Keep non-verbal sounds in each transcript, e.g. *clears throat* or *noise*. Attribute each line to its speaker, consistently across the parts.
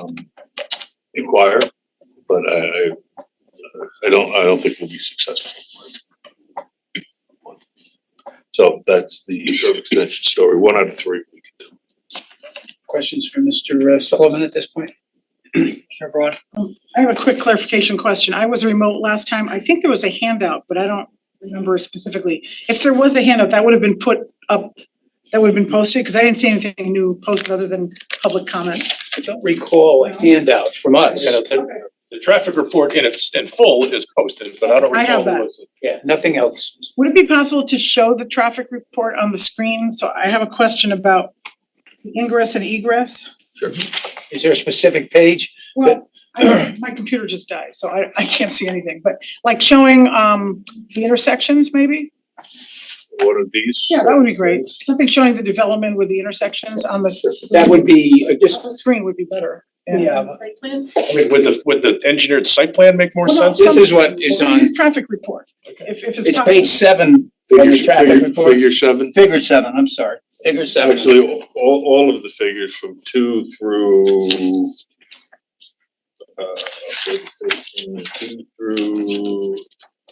Speaker 1: um, inquire, but I, I, I don't, I don't think we'll be successful. So that's the curb extension story, one out of three we can do.
Speaker 2: Questions for Mr. Sullivan at this *clears throat* point? Commissioner Braun?
Speaker 3: I have a quick clarification question. I was remote last time. I think there was a handout, but I don't remember specifically. If there was a handout, that would have been put up, that would have been posted, because I didn't see anything new posted other than public comments.
Speaker 2: I don't recall a handout from us.
Speaker 4: Yeah, the, the traffic report in its, in full is posted, but I don't
Speaker 3: I
Speaker 4: recall
Speaker 3: have
Speaker 4: who
Speaker 3: that.
Speaker 4: was it.
Speaker 2: Yeah, nothing else.
Speaker 3: Would it be possible to show the traffic report on the screen? So I have a question about ingress and egress.
Speaker 2: Is there a specific page?
Speaker 3: Well, I, my computer just died, so I, I can't see anything, but like showing, um, the intersections maybe?
Speaker 1: One of these.
Speaker 3: Yeah, that would be great. Something showing the development with the intersections on the. s-
Speaker 2: That would be uh, just,
Speaker 3: The screen would be better.
Speaker 2: Yeah.
Speaker 3: Site plan?
Speaker 4: I mean, would the, would the engineered site plan make more
Speaker 3: Well, no,
Speaker 4: sense?
Speaker 2: this is what is on,
Speaker 3: Use Traffic report, if if it's.
Speaker 2: it's
Speaker 3: possible.
Speaker 2: page seven,
Speaker 1: Figure,
Speaker 2: Under traffic
Speaker 1: figure,
Speaker 2: report.
Speaker 1: figure seven,
Speaker 2: figure seven, I'm sorry, figure seven.
Speaker 1: actually, all, all of the figures from two through uh, two through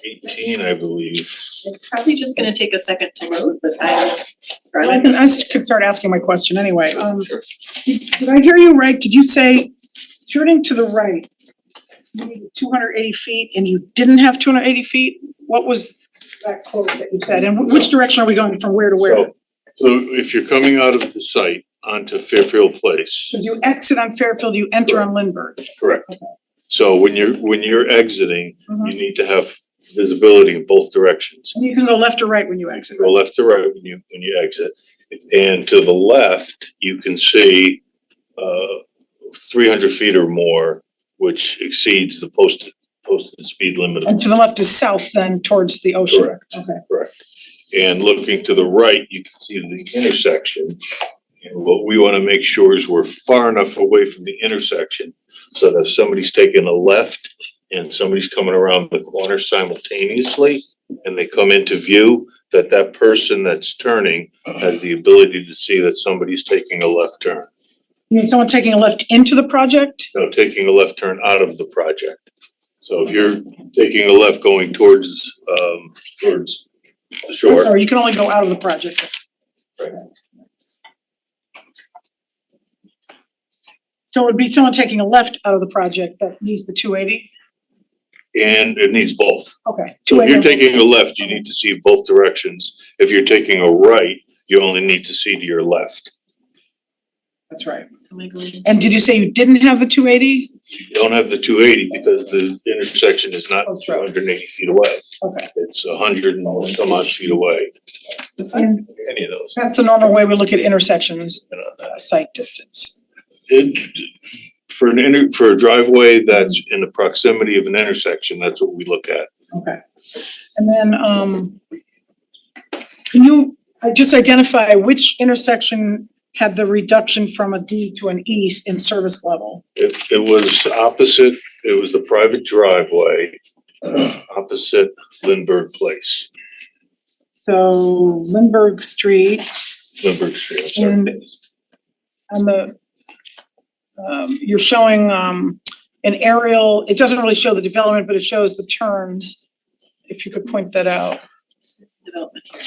Speaker 1: eighteen, I believe.
Speaker 5: It's probably just gonna take a second to load, but I.
Speaker 3: Well, I
Speaker 5: Right,
Speaker 3: can, I s- could start asking my question anyway. Um, did I hear you right? Did you say turning to the right? You needed two hundred eighty feet and you didn't have two hundred eighty feet? What was that quote that you said? And wh- which direction are we going from where to where?
Speaker 1: So, so if you're coming out of the site onto Fairfield Place,
Speaker 3: Cause you exit on Fairfield, you enter on Lindbergh.
Speaker 1: correct? So when you're, when you're exiting,
Speaker 3: Mhm.
Speaker 1: you need to have visibility in both directions.
Speaker 3: And you can go left or right when you exit.
Speaker 1: Go left to right when you, when you exit. And to the left, you can see, uh, three hundred feet or more, which exceeds the posted, posted speed limit. of
Speaker 3: And to the left is south then towards the ocean.
Speaker 1: Correct.
Speaker 3: Okay.
Speaker 1: And looking to the right, you can see the intersection. And what we wanna make sure is we're far enough away from the intersection so that if somebody's taking a left and somebody's coming around the corner simultaneously and they come into view, that that person that's turning has the ability to see that somebody's taking a left turn.
Speaker 3: You mean someone taking a left into the project?
Speaker 1: No, taking a left turn out of the project. So if you're taking a left going towards, um, towards the shore.
Speaker 3: Sorry, you can only go out of the project.
Speaker 1: Right.
Speaker 3: So it would be someone taking a left out of the project that needs the two eighty?
Speaker 1: And it needs both.
Speaker 3: Okay.
Speaker 1: So if
Speaker 3: 280.
Speaker 1: you're taking a left, you need to see both directions. If you're taking a right, you only need to see to your left.
Speaker 3: That's right.
Speaker 5: Somebody
Speaker 3: And did you say you didn't have the two eighty?
Speaker 1: You don't have the two eighty because the intersection is not
Speaker 3: Post
Speaker 1: two
Speaker 3: road.
Speaker 1: hundred and eighty feet away.
Speaker 3: Okay.
Speaker 1: It's a hundred and some odd feet away,
Speaker 3: And
Speaker 1: any of those.
Speaker 3: that's the normal way we look at intersections,
Speaker 1: you know, that-
Speaker 3: uh, site distance.
Speaker 1: It, for an inter, for a driveway that's in the proximity of an intersection, that's what we look at.
Speaker 3: Okay. And then, um, can you uh, just identify which intersection had the reduction from a D to an E in service level?
Speaker 1: It, it was opposite, it was the private driveway, opposite Lindbergh Place,
Speaker 3: So Lindbergh Street
Speaker 1: Lindbergh Street, I'm sorry.
Speaker 3: and on the, um, you're showing, um, an aerial, it doesn't really show the development, but it shows the turns. If you could point that out.
Speaker 5: development here.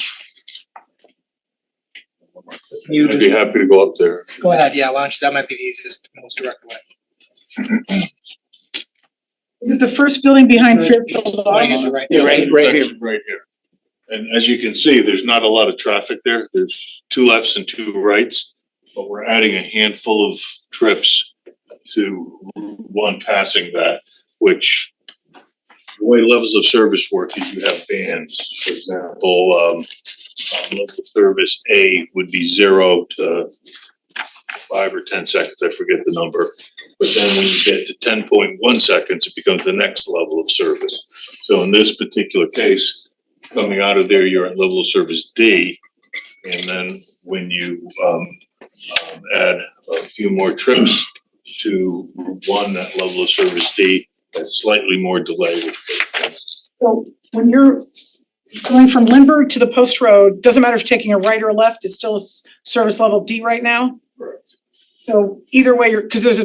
Speaker 2: Can you
Speaker 1: I'd be
Speaker 2: just,
Speaker 1: happy to go up there.
Speaker 2: go ahead, yeah, launch, that might be the easiest, most direct way.
Speaker 3: Is it the first building behind Fairfield
Speaker 2: Wanna
Speaker 3: Auto?
Speaker 2: get the right- right- right here.
Speaker 1: Right here. And as you can see, there's not a lot of traffic there. There's two lefts and two rights. But we're adding a handful of trips to one passing that, which the way levels of service work is you have bands, for example, um, um, level of service A would be zero to five or ten seconds, I forget the number. But then when you get to ten point one seconds, it becomes the next level of service. So in this particular case, coming out of there, you're at level of service D. And then when you um um, add a few more trips to Route one, that level of service D, that's slightly more delay, which
Speaker 3: So when you're going from Lindbergh to the post road, doesn't matter if you're taking a right or a left, it's still s- service level D right now?
Speaker 1: Correct.
Speaker 3: So either way, you're, cause there's a